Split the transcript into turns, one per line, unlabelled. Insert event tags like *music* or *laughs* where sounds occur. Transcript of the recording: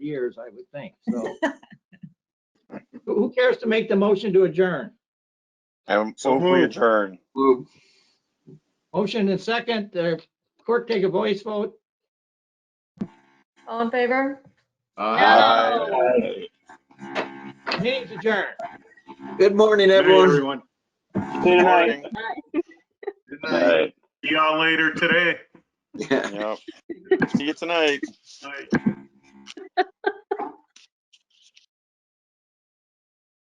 years, I would think, so. *laughs* Who- Who cares to make the motion to adjourn?
And
So
move we
moved.
adjourn.
Move.
Motion and second, uh, clerk take a voice vote.
All in favor?
Aye.
Meeting's adjourned.
Good morning,
Good night,
everyone.
everyone.
Good morning.
Good
Aye.
night. See y'all later today.
Yep. See you tonight.
Night.